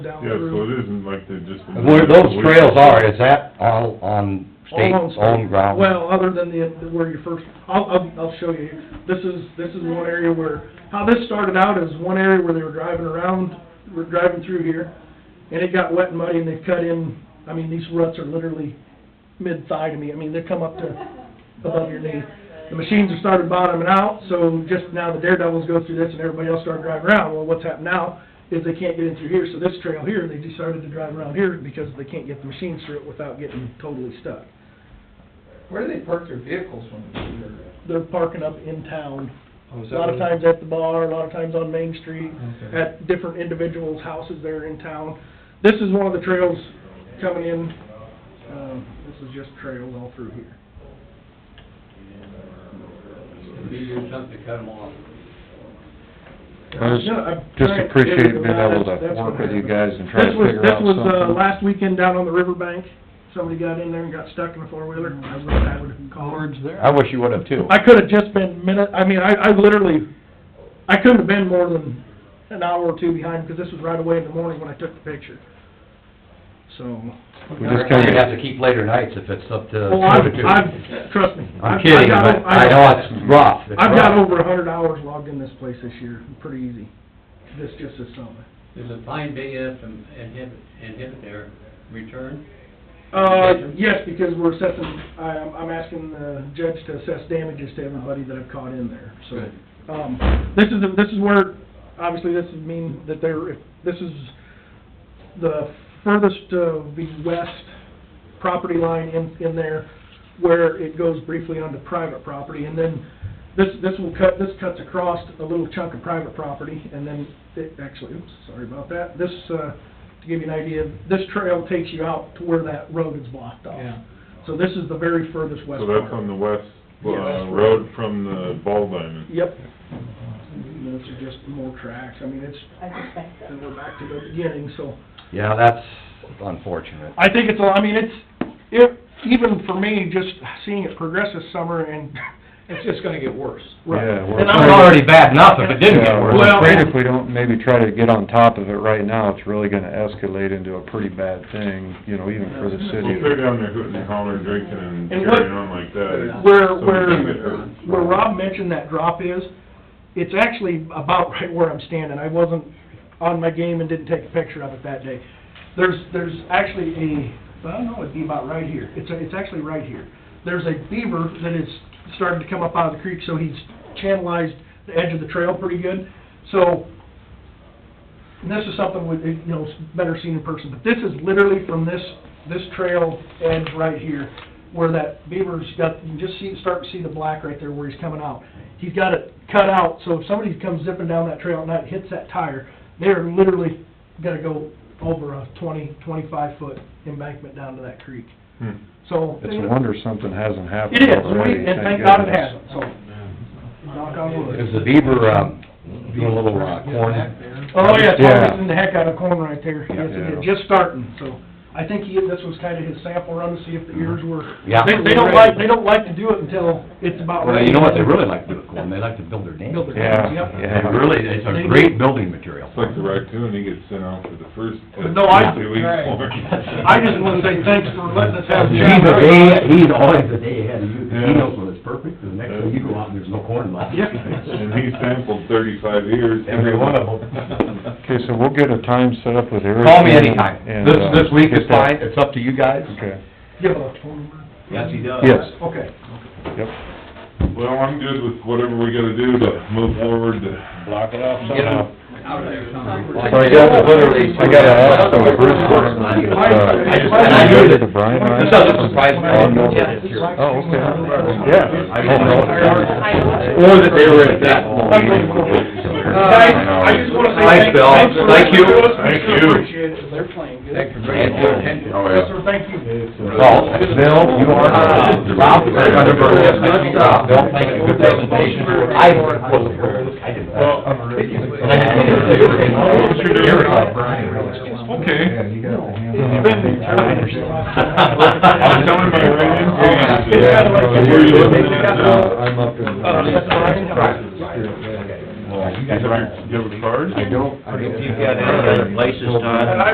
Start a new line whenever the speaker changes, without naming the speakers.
down
Yeah, so
through.
it isn't like they just...
Where those trails are, is that all on state-owned ground?
Well, other than the, where you first, I'll, I'll, I'll show you. This is, this is one area where, how this started out is one area where they were driving around, were driving through here, and it got wet and muddy, and they cut in, I mean, these ruts are literally mid-thigh to me. I mean, they come up to above your knee. The machines have started bottoming out, so just now the daredevils go through this and everybody else started driving around. Well, what's happened now is they can't get in through here, so this trail here, they decided to drive around here because they can't get the machines through it without getting totally stuck.
Where do they park their vehicles when they're here?
They're parking up in town,
Oh, is
a
that
lot of
where-
times at the bar, a lot of times on Main Street,
Okay.
at different individuals' houses there in town. This is one of the trails coming in, um, this is just trails all through here.
It'd be your something to cut them off.
I just- Just appreciate being able to work with you guys and try to
This was,
figure
this
out
was, uh,
something.
last weekend down on the riverbank, somebody got in there and got stuck in a four-wheeler,
Mm,
I wish I would've called.
there.
I wish you would've too.
I could've just been minute, I mean, I, I literally, I couldn't have been more than an hour or two behind, because this was right away in the morning when I took the picture. So,
We just
We're
kinda-
gonna have to keep later nights if it's up to...
well, I've, I've, trust me. I've-
I'm
I've
kidding,
got
but
o-
I know it's rough. It's
I've got
rough.
over a hundred hours logged in this place this year, pretty easy, this, just this summer.
There's a fine big F and inhibit, inhibit their return.
Uh, yes, because we're assessing, I, I'm asking the judge to assess damages to everybody that I've caught in there,
Good.
so. Um, this is, this is where, obviously, this would mean that they're, if, this is the furthest of the west property line in, in there, where it goes briefly onto private property, and then this, this will cut, this cuts across a little chunk of private property, and then it, actually, oops, sorry about that, this, uh, to give you an idea, this trail takes you out to where that road is blocked off.
Yeah.
So this is the very furthest west
So
part.
that's on the west,
Yeah.
uh, road from the Ball Diamond.
Yep. And Those are just more tracks, I mean, it's, and we're back to the beginning, so.
Yeah, that's unfortunate.
I think it's, a- I mean, it's, it, even for me, just seeing it progress this summer and,
It's just gonna get worse.
right.
Yeah, we're-
And
It's
I'm not-
already bad enough if it didn't get
Yeah,
worse.
we're
Well-
afraid if we don't maybe try to get on top of it right now, it's really gonna escalate into a pretty bad thing, you know, even for the
Well, if they're
city.
down there hooting and hollering, drinking and
And what-
carrying on like that.
Where,
somebody's
where,
gonna get hurt.
where Rob mentioned that drop is, it's actually about right where I'm standing. I wasn't on my game and didn't take a picture of it that day. There's, there's actually a, I don't know, it'd be about right here. It's, a- it's actually right here. There's a beaver that is starting to come up out of the creek, so he's channelized the edge of the trail pretty good. So, and this is something with, you know, it's better seen in person, but this is literally from this, this trail edge right here, where that beaver's got, you can just see, start to see the black right there where he's coming out. He's got it cut out, so if somebody comes zipping down that trail at night, and hits that tire, they're literally gonna go over a twenty, twenty-five foot embankment down to that creek.
Hmm.
So.
It's a wonder something hasn't
It
happened
is,
already,
we- and thank God it
goodness.
hasn't, so, knock on wood.
Is the beaver, um, doing a little, uh, corn?
Oh, yeah, it's
Yeah.
harvesting the heck out of corn right there, yes, it is,
Yeah.
just starting, so, I think he, this was kinda his sample run to see if the ears were.
Mm-hmm. Yeah.
They, they don't like, they don't like to do it until it's about
Well,
ready.
you know what they really like to do with corn? They like to build their dams.
Build their-
Yeah,
Yep.
They
yeah.
really, it's a great building material.
It's like the raccoon, he gets sent out for the first test.
No, I-
Two weeks
right.
for it.
I just wanna say thanks for letting us have. the
He's
chat.
a day, he's always a day ahead of you, 'cause he
Yeah.
knows when it's perfect, and the next time you go out and there's no corn left.
Yeah.
And he sampled thirty-five years.
Every one of them.
Okay, so we'll get a time set up with Eric.
Call me anytime.
and,
This,
uh,
this week is
get that-
fine, it's up to you guys.
Okay,
Give a phone number.
Yes, he
Uh,
does.
yes,
Okay.
yep.
Well, I'm good with whatever we gotta do to move forward to. Block it off
Get him
Out there somewhere.
Like-
So I got, literally, I gotta ask them, Bruce,
I just-
uh,
and I knew that-
the Brian, right?
This doesn't surprise me.
Oh, no.
Yeah.
Oh, okay,
Yeah.
yeah. Oh, no.
Or that they were at that moment.
Guys, I just wanna say
Thanks,
thank-
Bill.
thanks for
Thank you.
listening to us. We
Thank
sure
you.
Appreciate it, they're playing good.
Thanks for bringing it to our attention.
Oh,
Yes, sir, thank you.
Well, Bill, you are, uh, Ralph, Mr. Underberg, uh, Bill, thank you, good presentation. I wasn't aware of this. I didn't.
Well,
And I didn't mean to say it.
What you're doing.
Eric, uh, Brian, really.
Okay.
I
I'm telling my right in.
Yeah.
Where you looking at now?
I'm up in.
Uh, that's Brian.
Well, you
You have
guys are-
your- you have a card?
uh,
I uh, don't.
If you've got any other places, Todd,